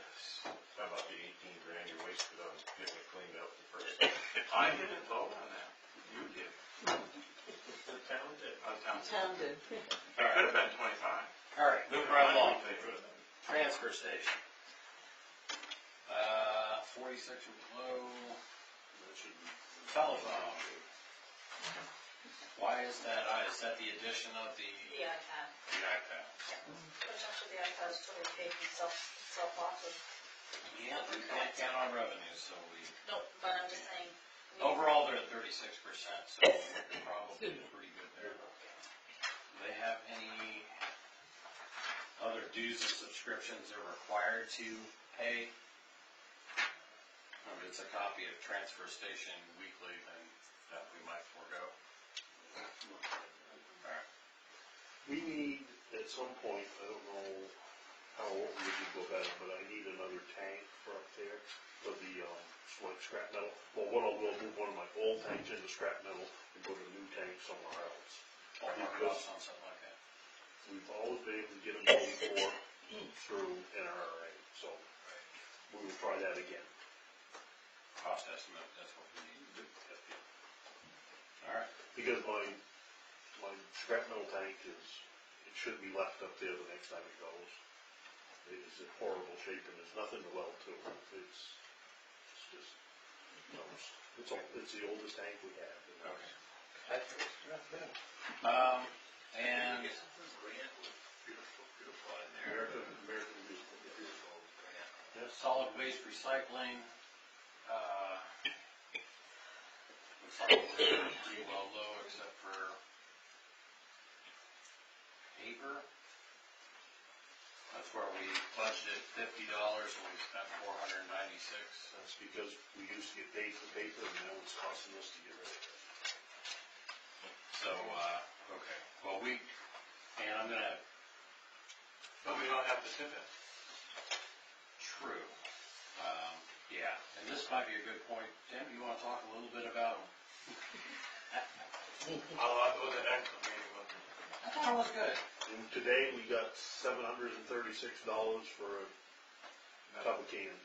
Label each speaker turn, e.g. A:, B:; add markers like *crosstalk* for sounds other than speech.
A: *laughs* I didn't vote on that. You did. The town did. Oh, town did.
B: Town did.
A: It could have been twenty-five.
C: All right,
A: They
C: moving
A: were
C: right along,
A: not in favor of that.
C: transfer station. Uh, forty-six or below, that should be telephone. Why is that? I, is that the addition of the
D: The iPad,
C: iPad?
D: which actually the iPad is totally paid and self, self-bought with,
C: Yeah, we can't count on revenue, so we,
D: no, but I'm just saying. we-
C: overall, they're at thirty-six percent, so we're probably pretty good there. Do they have any other dues and subscriptions they're required to pay? If it's a copy of transfer station weekly, then that we might forego. Alright,
E: We need, at some point, I don't know how old we can go back, but I need another tank for up there for the, um, like scrap metal. Well, what I'll do, I'll move one of my old tanks into scrap metal and put a new tank somewhere else.
C: I'll mark it off on something like that.
E: We've always been able to get them paid for through NRA, so we will try that again.
C: Cost estimate, that's what we need. Alright,
E: Because my, my scrap metal tank is, it should be left up there the next time it goes. It is in horrible shape and there's nothing to weld to. It's, it's just, no, it's, it's all, it's the oldest tank we have.
C: okay.
A: Beautiful,
C: Um, and
A: beautiful in there.
E: American, American Museum.
C: The solid waste recycling, uh, looks like we're pretty well low except for paper. That's where we budgeted fifty dollars and we spent four hundred and ninety-six.
E: That's because we used to get paid for paper and now it's costing us to get rid of it.
C: So, uh, okay, well, we, and I'm gonna,
A: But we don't have to do that.
C: true, um, yeah, and this might be a good point. Tim, you wanna talk a little bit about,
A: I'll, I'll go to the next meeting with them.
C: I thought it was good.
E: And today we got seven hundred and thirty-six dollars for a cup of cans.